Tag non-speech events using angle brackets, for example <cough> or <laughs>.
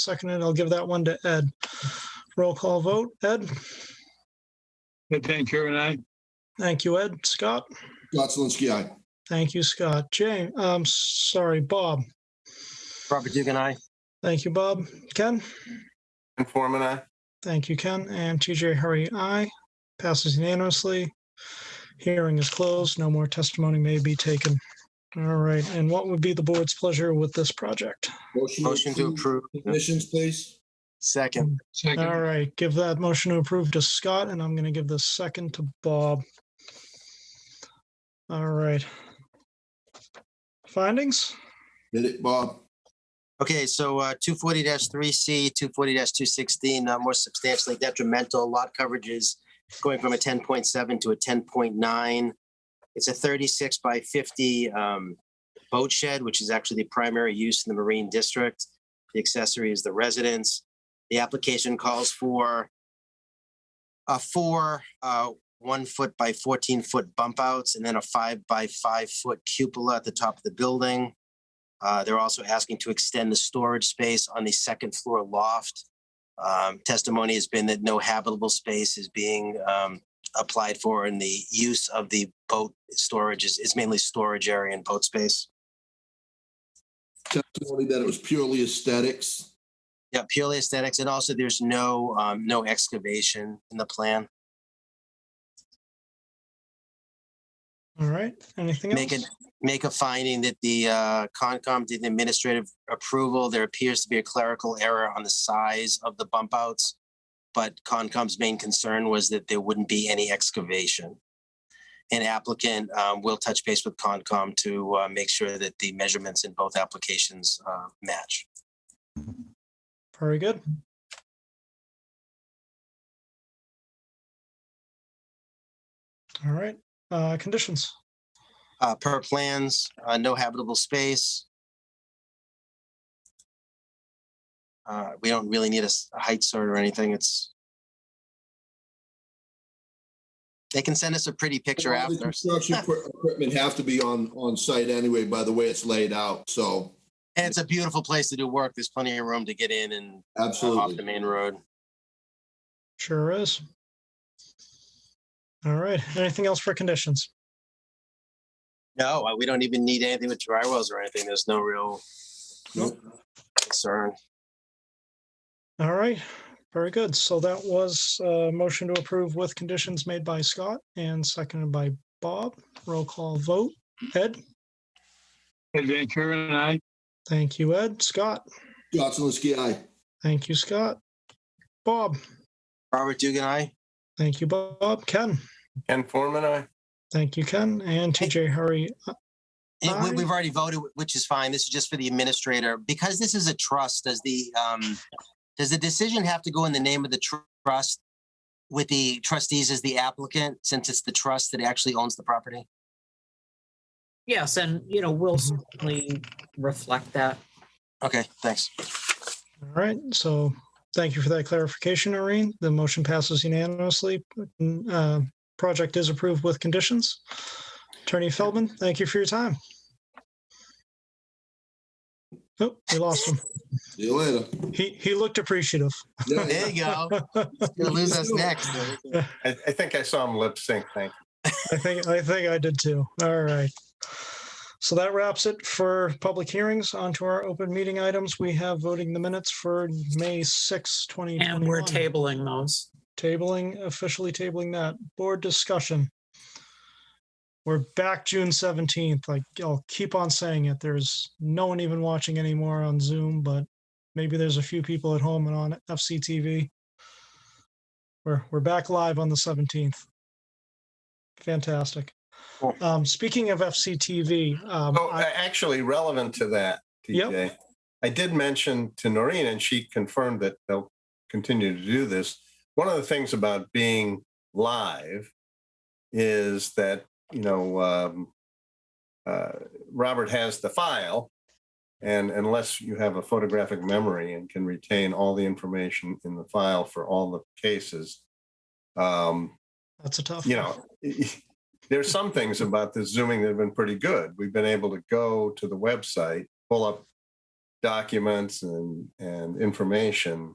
seconded. I'll give that one to Ed. Roll call vote. Ed? Ed Van Kuren, aye. Thank you, Ed. Scott? Scott Zelinski, aye. Thank you, Scott. Jay, I'm sorry, Bob. Robert Dugan, I. Thank you, Bob. Ken? Ken Forman, aye. Thank you, Ken. And TJ Hurry, aye. Passes unanimously. Hearing is closed. No more testimony may be taken. All right. And what would be the board's pleasure with this project? Motion to approve. Commissions, please. Second. All Second, right. Give that motion to approve to Scott, and I'm going to give the second to Bob. All right. Findings? Hit it, Bob. Okay, so uh, two forty three C, two forty two sixteen, uh, more substantially detrimental lot coverages going from a ten point seven to a ten point nine. It's a thirty-six by fifty um, boat shed, which is actually the primary use in the Marine District. The accessory is the residence. The application calls for a four uh, one foot by fourteen foot bump outs and then a five by five foot cupola at the top of the building. Uh, They're also asking to extend the storage space on the second floor loft. Um, Testimony has been that no habitable space is being um, applied for and the use of the boat storage is is mainly storage area and boat space. Testimony that it was purely aesthetics. Yeah, purely aesthetics. And also there's no, um, no excavation in the plan. All right. Anything Make else? it, make a finding that the uh, Concom did an administrative approval. There appears to be a clerical error on the size of the bump outs. But Concom's main concern was that there wouldn't be any excavation. An applicant um, will touch base with Concom to uh, make sure that the measurements in both applications uh, match. Very good. All right. Uh, conditions. Uh, Per plans, uh, no habitable space. Uh, We don't really need a s- a height cert or anything. It's. They can send us a pretty picture All the after. Construction equi- equipment have to be on, on site anyway, by the way it's laid out, so And it's a beautiful place to do work. There's plenty of room to get in and uh, off the absolutely. main road. Sure is. All right. Anything else for conditions? No, uh, we don't even need anything with dry wells or anything. There's no real Nope. concern. All right, very good. So that was a motion to approve with conditions made by Scott and seconded by Bob. Roll call vote. Ed, Ed Van Kuren, aye. thank you, Ed. Scott, Scott Zelinski, aye. thank you, Scott. Bob, Robert Dugan, I. thank you, Bob. Ken, Ken Forman, aye. thank you, Ken. And TJ Hurry, It- Aye. we, we've already voted, which is fine. This is just for the administrator. Because this is a trust, does the, um, does the decision have to go in the name of the tr- trust with the trustees as the applicant, since it's the trust that actually owns the property? Yes, and you know, we'll certainly reflect that. Okay, thanks. All right, so thank you for that clarification, Irene. The motion passes unanimously. Uh, Project is approved with conditions. Attorney Feldman, thank you for your time. Oh, we lost him. See you <laughs> later. He, he looked appreciative. Yeah, There yeah. you go. He's gonna lose <laughs> us next. I, I think I saw him lip sync, thank I think, I think I did too. All right. So that wraps it for public hearings. On to our open meeting items. We have voting the minutes for May 6, 2021. And we're tabling those. Tabling, officially tabling that. Board discussion. We're back June seventeenth. Like I'll keep on saying it. There's no one even watching anymore on Zoom, but maybe there's a few people at home and on FCTV. We're we're back live on the seventeenth. Fantastic. Cool. Um, speaking of FCTV, um, Oh, I- a- actually relevant to that, TJ. I did mention to Noreen and she confirmed that they'll continue to do this. One of the things about being live is that, you know, um, uh, Robert has the file. And unless you have a photographic memory and can retain all the information in the file for all the cases, um, that's a tough. you one. know, <laughs> there's some things about this zooming that have been pretty good. We've been able to go to the website, pull up documents and, and information